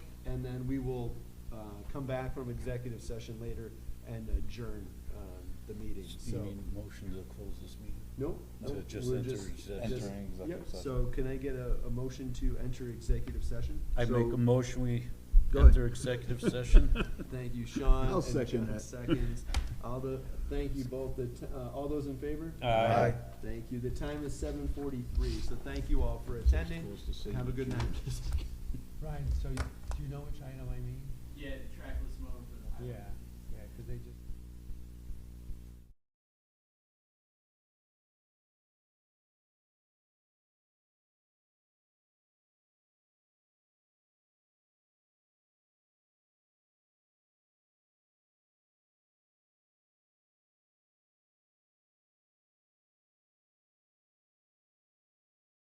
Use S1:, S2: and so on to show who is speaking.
S1: and then we will uh, come back from executive session later and adjourn um, the meeting,
S2: You
S1: so.
S2: mean motion to close this meeting?
S1: No, no,
S2: To just
S1: we're
S2: enter
S1: just.
S2: exec-
S1: just-
S3: Entering executive
S1: yep,
S3: session.
S1: So can I get a, a motion to enter executive session?
S2: I
S1: So-
S2: make a motion, we
S1: Go ahead.
S2: enter executive session.
S1: Thank you, Sean.
S4: I'll
S1: and
S4: second
S1: John
S4: that.
S1: Seconds. All the, thank you both, the, t- uh, all those in favor?
S2: Aye. Aye.
S1: Thank you. The time is seven forty-three, so thank you all for attending. Have a good night.
S5: Ryan, so you- do you know which item I mean?
S6: Yeah, trackless mode for the highway.
S5: Yeah, yeah, 'cause they just.